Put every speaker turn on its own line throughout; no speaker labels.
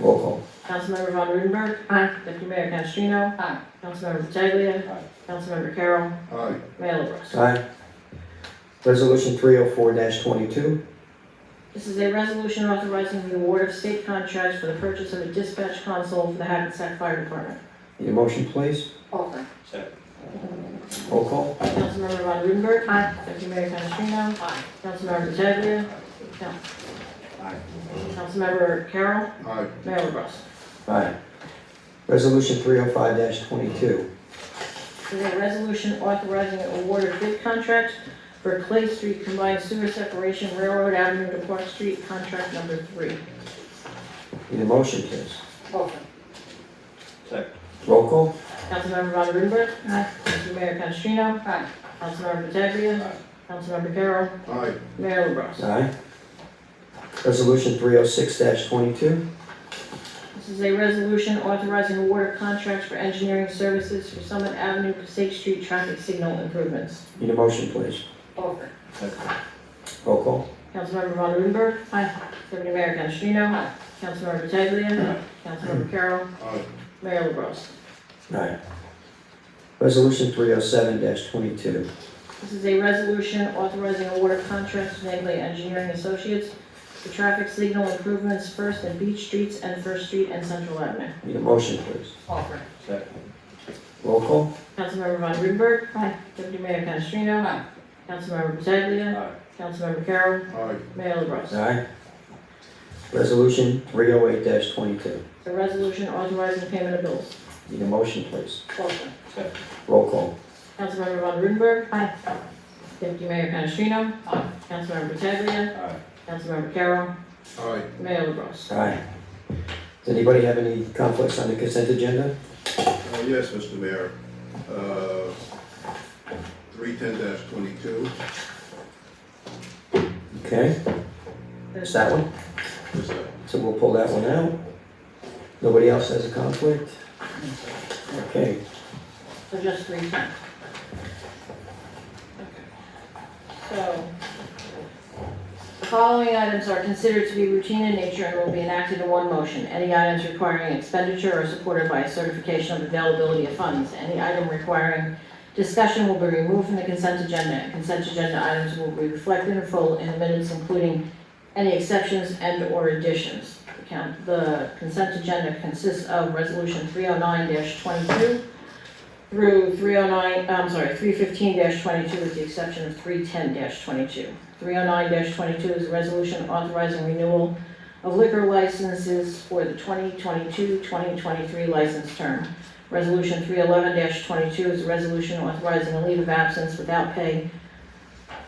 Roll call.
Councilmember Von Rudenberg.
Aye.
Deputy Mayor Canestrino.
Aye.
Councilmember Pataglia.
Aye.
Councilmember Carroll.
Aye.
Mayor LaBrus.
Aye. Resolution three oh four twenty-two,
This is a resolution authorizing the award of state contracts for the purchase of a dispatch console for the Hackensack Fire Department.
need a motion please?
Offer.
Second.
Roll call.
Councilmember Von Rudenberg.
Aye.
Deputy Mayor Canestrino.
Aye.
Councilmember Pataglia.
Aye.
Councilmember Carroll.
Aye.
Mayor LaBrus.
Aye. Resolution three oh five twenty-two,
This is a resolution authorizing an award of bid contract for Clay Street Combined Sewer Separation Railroad Avenue to Park Street, contract number three.
need a motion please?
Offer.
Second.
Roll call.
Councilmember Von Rudenberg.
Aye.
Deputy Mayor Canestrino.
Aye.
Councilmember Pataglia.
Aye.
Councilmember Carroll.
Aye.
Mayor LaBrus.
Aye. Resolution three oh six twenty-two,
This is a resolution authorizing award of contracts for engineering services for Summit Avenue, Passaic Street traffic signal improvements.
need a motion please?
Offer.
Second.
Roll call.
Councilmember Von Rudenberg.
Aye.
Deputy Mayor Canestrino.
Aye.
Councilmember Pataglia. Councilmember Carroll.
Aye.
Mayor LaBrus.
Aye. Resolution three oh seven twenty-two,
This is a resolution authorizing award of contracts to Nagley Engineering Associates for traffic signal improvements First and Beach Streets and First Street and Central Avenue.
need a motion please?
Offer.
Second.
Roll call.
Councilmember Von Rudenberg.
Aye.
Deputy Mayor Canestrino.
Aye.
Councilmember Pataglia.
Aye.
Councilmember Carroll.
Aye.
Mayor LaBrus.
Aye. Resolution three oh eight twenty-two,
The resolution authorizing payment of bills.
need a motion please?
Offer.
Second.
Roll call.
Councilmember Von Rudenberg.
Aye.
Deputy Mayor Canestrino.
Aye.
Councilmember Pataglia.
Aye.
Councilmember Carroll.
Aye.
Mayor LaBrus.
Aye. Does anybody have any conflicts on the consent agenda?
Uh, Yes, Mr. Mayor. Uh, Three ten twenty-two,
Okay, it's that one,
is that?
so we'll pull that one out. Nobody else has a conflict? Okay,
So just three ten. So, the following items are considered to be routine in nature and will be enacted in one motion. Any items requiring expenditure are supported by a certification of availability of funds. Any item requiring discussion will be removed from the consent agenda. Consent agenda items will be reflected in full in the minutes, including any exceptions and/or additions. The count- The consent agenda consists of Resolution 309-22, through 309, I'm sorry, 315-22 with the exception of 310-22. 309-22 is a resolution authorizing renewal of liquor licenses for the 2022-2023 license term. Resolution 311-22 is a resolution authorizing a leave of absence without pay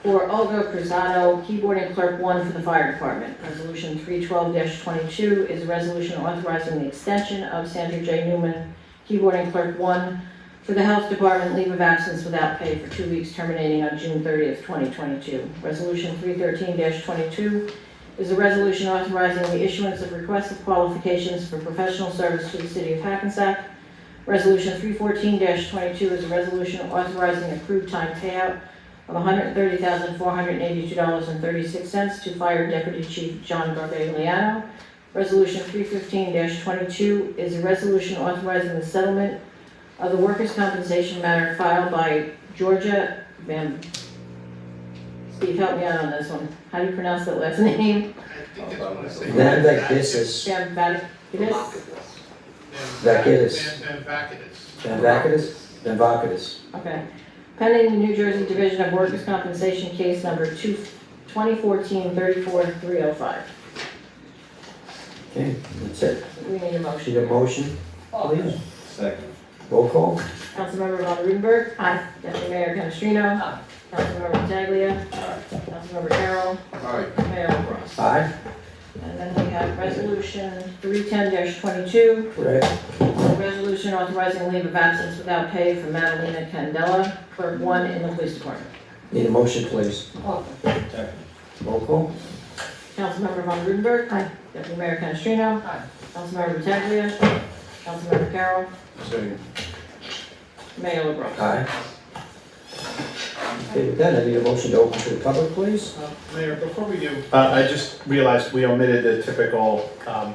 for Olga Cruzado, keyboarding clerk one for the fire department. Resolution 312-22 is a resolution authorizing the extension of Sandra J. Newman, keyboarding clerk one for the Health Department, leave of absence without pay for two weeks terminating on June 30th, 2022. Resolution 313-22 is a resolution authorizing the issuance of requests of qualifications for professional service to the city of Hackensack. Resolution 314-22 is a resolution authorizing accrued time payout of $130,482.36 to Fire Deputy Chief John Garbagliano. Resolution 315-22 is a resolution authorizing the settlement of the workers' compensation matter filed by Georgia Van... Steve, help me out on this one. How do you pronounce that last name?
I think that's what I say.
Now that this is,
Van Vaticus?
Vakidis.
Van Vakidis.
Van Vakidis? Van Vakidis.
Okay. Pending the New Jersey Division of Workers' Compensation Case Number 2 2014-34-305.
Okay, that's it.
We need a
Need a
motion.
motion,
Offer.
please?
Second.
Roll call.
Councilmember Von Rudenberg. Aye. Deputy Mayor Canestrino.
Aye.
Councilmember Pataglia. Councilmember Carroll.
Aye.
Mayor LaBrus.
Aye,
And then we have Resolution 310-22,
correct.
A Resolution authorizing leave of absence without pay for Madalena Candela, clerk one in the police department.
Need a motion, please?
Offer.
Second.
Roll call.
Councilmember Von Rudenberg. Aye. Deputy Mayor Canestrino.
Aye.
Councilmember Pataglia. Councilmember Carroll.
Second.
Mayor LaBrus.
Aye. Okay, with that, I need a motion to open to the public, please?
Uh, Mayor, before we do,
Uh, I just realized we omitted the typical, um,